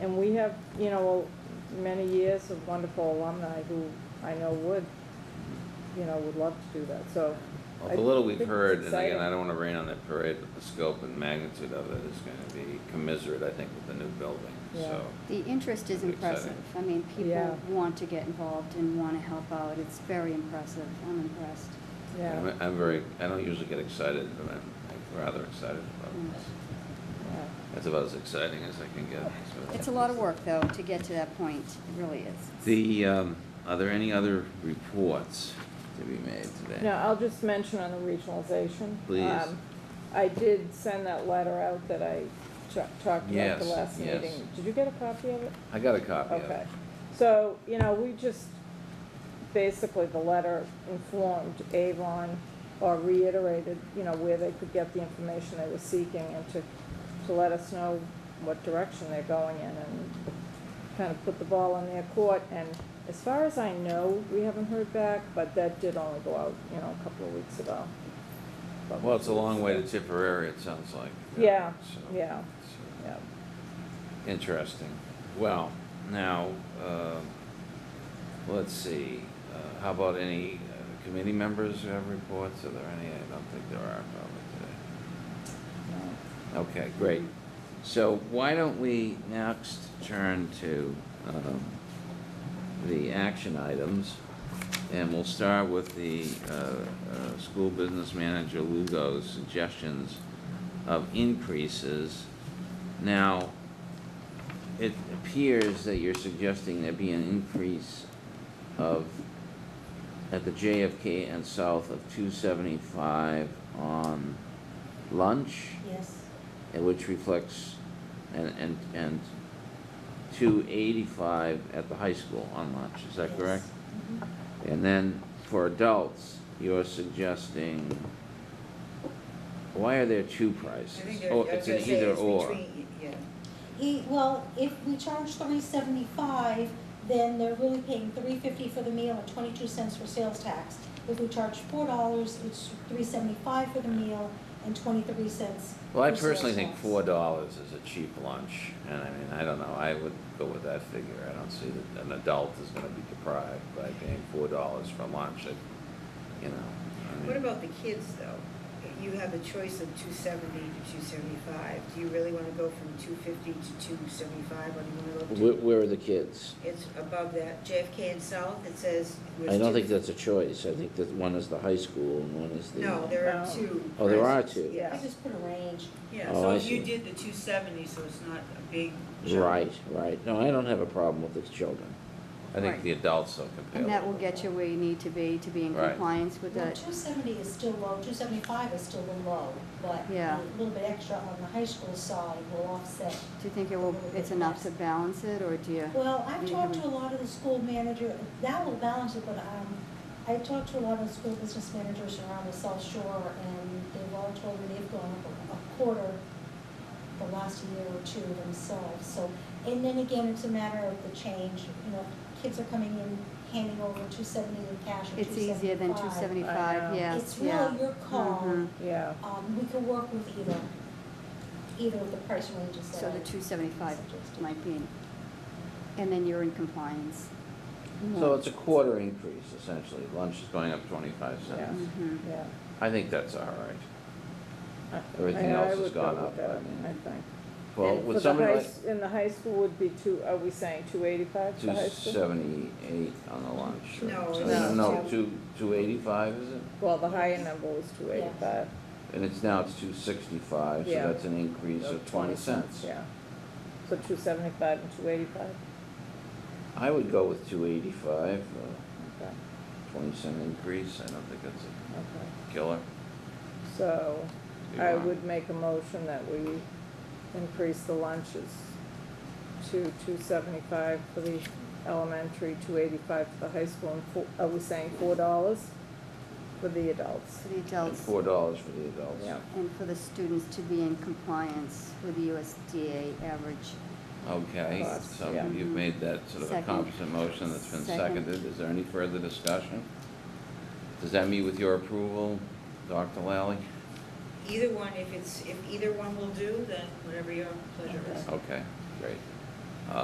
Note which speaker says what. Speaker 1: have, you know, many years of wonderful alumni who I know would, you know, would love to do that, so.
Speaker 2: Well,
Speaker 1: I
Speaker 2: the little we've
Speaker 1: think it's
Speaker 2: heard, and again, I
Speaker 1: exciting.
Speaker 2: don't wanna rain on that parade, but the scope and magnitude of it is gonna be commensurate, I think, with the new building,
Speaker 1: Yeah.
Speaker 2: so.
Speaker 3: The interest is
Speaker 2: Pretty
Speaker 3: impressive. I mean,
Speaker 1: Yeah.
Speaker 3: people want to get involved and want to help out. It's very impressive. I'm impressed.
Speaker 1: Yeah,
Speaker 2: I'm- I'm very, I don't usually get excited, but I'm I'm rather excited
Speaker 1: Mm.
Speaker 2: about this.
Speaker 1: yeah.
Speaker 2: That's about as exciting as I can get. so.
Speaker 3: It's a lot of work, though, to get to that point. It really is.
Speaker 2: The, um, are there any other reports to be made today?
Speaker 1: No, I'll just mention on the regionalization.
Speaker 2: Please.
Speaker 1: um, I did send that letter out that I cha- talked about
Speaker 2: Yes,
Speaker 1: the last
Speaker 2: yes.
Speaker 1: meeting. Did you get a copy of it?
Speaker 2: I got a copy of
Speaker 1: Okay.
Speaker 2: it.
Speaker 1: So, you know, we just, basically, the letter informed Avon or reiterated, you know, where they could get the information they were seeking and to, to let us know what direction they're going in and kind of put the ball in their court. And as far as I know, we haven't heard back, but that did only go out, you know, a couple of weeks ago. But-
Speaker 2: Well, it's a long way to Tipperary, it sounds like.
Speaker 1: Yeah,
Speaker 2: So-
Speaker 1: yeah,
Speaker 2: so-
Speaker 1: yeah.
Speaker 2: Interesting. Well, now, um, let's see, Uh, how about any uh, committee members who have reports? Are there any? I don't think there are probably
Speaker 1: no.
Speaker 2: today. Okay, great. So why don't we next turn to um, the action items? And we'll start with the uh, uh, school business manager Lugo's suggestions of increases. Now, it appears that you're suggesting there be an increase of, at the JFK and South of two seventy-five on lunch,
Speaker 4: Yes,
Speaker 2: and which reflects, and, and, and two eighty-five at the high school on lunch, is that
Speaker 4: Yes. Mm-hmm.
Speaker 2: correct? And then for adults, you're suggesting, why are there two prices?
Speaker 5: I think they're, I
Speaker 2: Oh,
Speaker 5: was
Speaker 2: it's
Speaker 5: gonna
Speaker 2: an
Speaker 5: say
Speaker 2: either
Speaker 5: it's
Speaker 2: or.
Speaker 5: between, yeah.
Speaker 4: he, well, if we charge three seventy-five, then they're really paying three fifty for the meal and twenty-two cents for sales tax. If we charge four dollars, it's three seventy-five for the meal and twenty-three cents
Speaker 2: Well, I
Speaker 4: for sales
Speaker 2: personally think
Speaker 4: tax.
Speaker 2: four dollars is a cheap lunch, and I mean, I don't know, I would go with that figure, I don't see that an adult is gonna be deprived by paying four dollars for lunch, it, you know. I mean-
Speaker 5: What about the kids, though? You have the choice of two seventy to two seventy-five. Do you really wanna go from two fifty to two seventy-five, or do you wanna go up
Speaker 2: Where,
Speaker 5: to?
Speaker 2: where are the kids?
Speaker 5: It's above that, JFK and South, it says. it was
Speaker 2: I don't
Speaker 5: two-
Speaker 2: think that's a choice, I think that one is the high school and one is the.
Speaker 5: No, there are
Speaker 1: No.
Speaker 5: two.
Speaker 2: Oh, there are
Speaker 5: prices.
Speaker 2: two.
Speaker 4: I
Speaker 5: Yeah,
Speaker 4: just put a range.
Speaker 5: yeah,
Speaker 2: Oh,
Speaker 5: so
Speaker 2: I
Speaker 5: if you
Speaker 2: see.
Speaker 5: did the two seventy, so it's not a big. jump.
Speaker 2: Right, right, no, I don't have a problem with the children. I think
Speaker 3: Right.
Speaker 2: the adults are
Speaker 3: And that will
Speaker 2: compelled.
Speaker 3: get you where you need to be to be in
Speaker 2: Right.
Speaker 3: compliance with
Speaker 4: Well,
Speaker 3: that.
Speaker 4: two seventy is still low, two seventy-five is still low, but
Speaker 3: Yeah.
Speaker 4: a little bit extra on the high school side will offset
Speaker 3: Do you think it will, it's enough to balance it, or do you?
Speaker 4: Well, I've
Speaker 3: you
Speaker 4: talked
Speaker 3: have
Speaker 4: to a lot of the school manager, that will balance it, but, um, I talked to a lot of the school business managers around the South Shore, and they've all told me they've gone up a quarter the last year or two themselves, so, and then again, it's a matter of the change, you know, kids are coming in handing over two seventy in cash or two
Speaker 3: It's
Speaker 4: seventy-five.
Speaker 3: easier than two
Speaker 1: I
Speaker 3: seventy-five,
Speaker 1: know.
Speaker 3: yes,
Speaker 4: It's
Speaker 3: yeah.
Speaker 4: really your call,
Speaker 3: Mhm.
Speaker 1: Yeah,
Speaker 4: um, we can work with either, either of the price ranges that
Speaker 3: So the
Speaker 4: I
Speaker 3: two seventy-five
Speaker 4: suggested.
Speaker 3: might be, in- and then you're in compliance.
Speaker 2: So it's a quarter increase essentially, lunch is going up twenty-five
Speaker 1: Yeah.
Speaker 2: cents.
Speaker 3: Mhm.
Speaker 1: yeah.
Speaker 2: I think that's all right.
Speaker 1: I-
Speaker 2: Everything
Speaker 1: I- I
Speaker 2: else has
Speaker 1: would go
Speaker 2: gone
Speaker 1: with
Speaker 2: up,
Speaker 1: that,
Speaker 2: I mean.
Speaker 1: I think.
Speaker 2: Well,
Speaker 1: And for
Speaker 2: would
Speaker 1: the
Speaker 2: somebody
Speaker 1: high
Speaker 2: like?
Speaker 1: s- And the high school would be two, are we saying two eighty-five for
Speaker 2: Two
Speaker 1: high school?
Speaker 2: seventy-eight on the lunch. or-
Speaker 5: No,
Speaker 2: No,
Speaker 5: it's
Speaker 2: no,
Speaker 5: two-
Speaker 2: two, two eighty-five is it?
Speaker 1: Well, the higher number was two eighty-five.
Speaker 2: And it's now it's two sixty-five, so
Speaker 1: Yeah.
Speaker 2: that's an increase of twenty cents.
Speaker 1: Yeah. So two seventy-five and two eighty-five,
Speaker 2: I would go with two eighty-five, uh,
Speaker 1: okay,
Speaker 2: twenty cent increase, I don't think that's a
Speaker 1: okay.
Speaker 2: killer.
Speaker 1: So
Speaker 2: You
Speaker 1: I
Speaker 2: want-
Speaker 1: would make a motion that we increase the lunches to two seventy-five for the elementary, two eighty-five for the high school, and four, are we saying four dollars for the adults?
Speaker 3: For the
Speaker 2: And
Speaker 3: adults
Speaker 2: four dollars for the adults.
Speaker 1: Yeah.
Speaker 3: and for the students to be in compliance with the USDA average.
Speaker 2: Okay,
Speaker 1: Cost,
Speaker 2: so
Speaker 1: yeah.
Speaker 2: you've made that sort of a
Speaker 3: Second.
Speaker 2: competent motion that's been
Speaker 3: Second.
Speaker 2: seconded, is there any further discussion? Does that meet with your approval, Dr. Lally?
Speaker 5: Either one, if it's, if either one will do, then whatever your pleasure is.
Speaker 2: Okay, great. Uh,